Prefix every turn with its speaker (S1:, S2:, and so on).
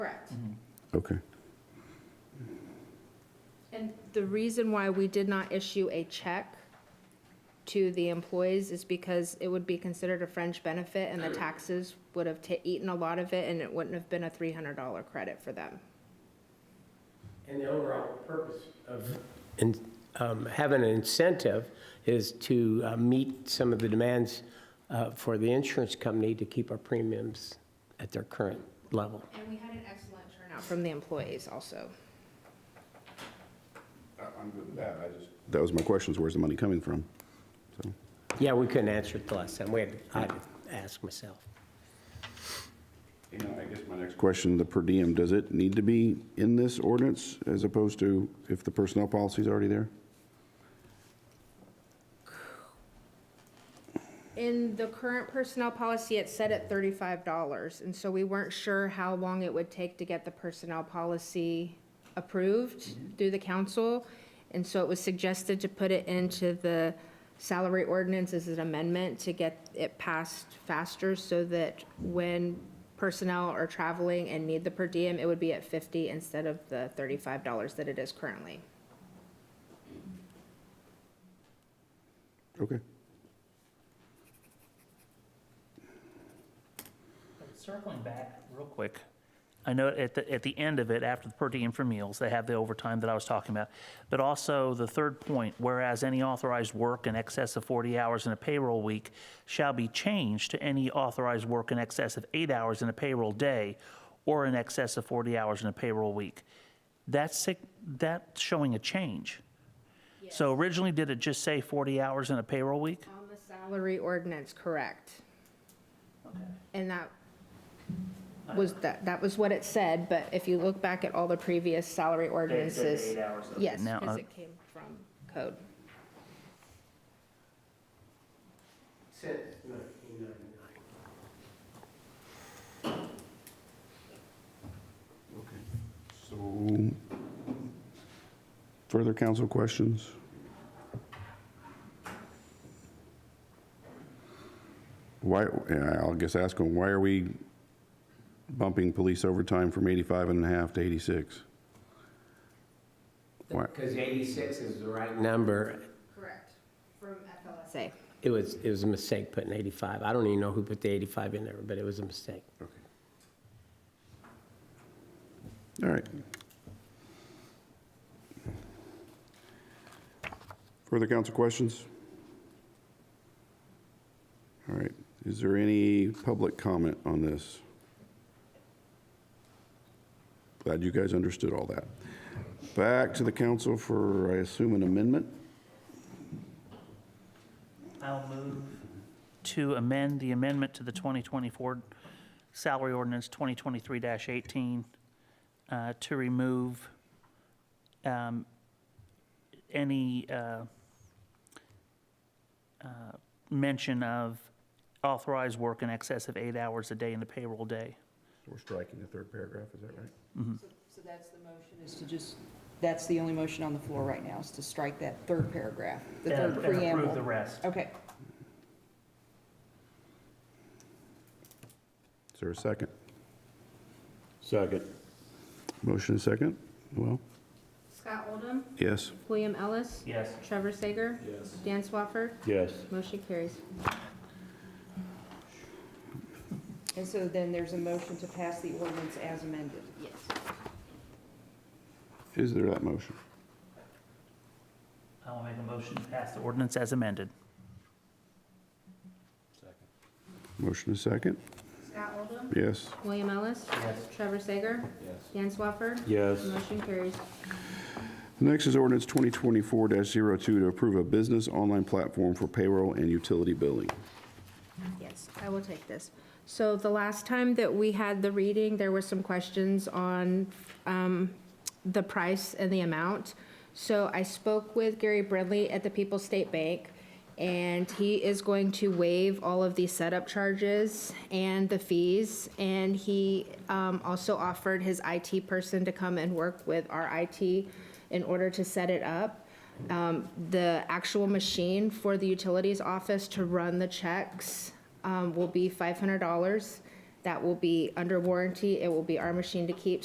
S1: Correct.
S2: Okay.
S1: And the reason why we did not issue a check to the employees is because it would be considered a fringe benefit and the taxes would have ta- eaten a lot of it and it wouldn't have been a three hundred dollar credit for them.
S3: And the overall purpose of in- um, having an incentive is to uh, meet some of the demands uh, for the insurance company to keep our premiums at their current level.
S1: And we had an excellent turnout from the employees also.
S2: I'm good with Uh, that, I just. That was my question, is where's the money coming from? So,
S3: Yeah, we couldn't answer it the last time. We had, I had to ask myself.
S2: you know, I guess my next. Question, the per diem, does it need to be in this ordinance as opposed to if the personnel policy's already there?
S1: In the current personnel policy, it's set at thirty-five dollars, and so we weren't sure how long it would take to get the personnel policy approved through the council. And so it was suggested to put it into the salary ordinance as an amendment to get it passed faster so that when personnel are traveling and need the per diem, it would be at fifty instead of the thirty-five dollars that it is currently.
S2: Okay.
S4: Circling back real quick, I know at the, at the end of it, after the per diem for meals, they have the overtime that I was talking about. But also the third point, whereas any authorized work in excess of 40 hours in a payroll week shall be changed to any authorized work in excess of eight hours in a payroll day or in excess of 40 hours in a payroll week. That's, sig- that's showing a change. So originally, did it just say 40 hours in a payroll week?
S1: On the salary ordinance, correct. And that was, that, that was what it said, but if you look back at all the previous salary ordinances, yes,
S4: Now,
S1: because
S4: uh,
S1: it came from code.
S3: Since 1999.
S2: So, further council questions? Why, yeah, I'll guess ask them, why are we bumping police overtime from 85 and a half to 86? Why,
S3: Because 86 is the right number.
S1: Correct, from FLSA.
S3: It was, it was a mistake putting 85. I don't even know who put the 85 in there, but it was a mistake.
S2: all right. Further council questions? All right, is there any public comment on this? Glad you guys understood all that. Back to the council for, I assume, an amendment?
S4: I'll move. To amend the amendment to the 2024 salary ordinance 2023-18 uh, to remove um, any uh, uh, mention of authorized work in excess of eight hours a day in the payroll day.
S2: We're striking the third paragraph, is that right?
S5: So that's the motion, is to just, that's the only motion on the floor right now, is to strike that third paragraph, the
S4: And-
S5: third
S4: And approve the
S5: preamble.
S4: rest.
S5: Okay,
S2: Is there a second?
S6: Second.
S2: Motion and second? Well,
S1: Scott Oldham,
S2: yes.
S1: William Ellis,
S4: Yes.
S1: Trevor Sager,
S6: Yes.
S1: Dan Swafford,
S6: Yes.
S1: motion carries.
S5: and so then there's a motion to pass the ordinance as amended.
S1: Yes.
S2: Is there that motion?
S4: I'll make a motion to pass the ordinance as amended.
S2: Motion and second?
S1: Scott Oldham,
S2: Yes.
S1: William Ellis, Trevor Sager,
S6: Yes.
S1: Dan Swafford,
S6: Yes.
S1: motion carries.
S2: Next is ordinance 2024-02 to approve a business online platform for payroll and utility billing.
S1: Yes, I will take this. So the last time that we had the reading, there were some questions on um, the price and the amount. So I spoke with Gary Bradley at the People's State Bank, and he is going to waive all of the setup charges and the fees. And he um, also offered his IT person to come and work with our IT in order to set it up um, the actual machine for the utilities office to run the checks um, will be $500. That will be under warranty. It will be our machine to keep,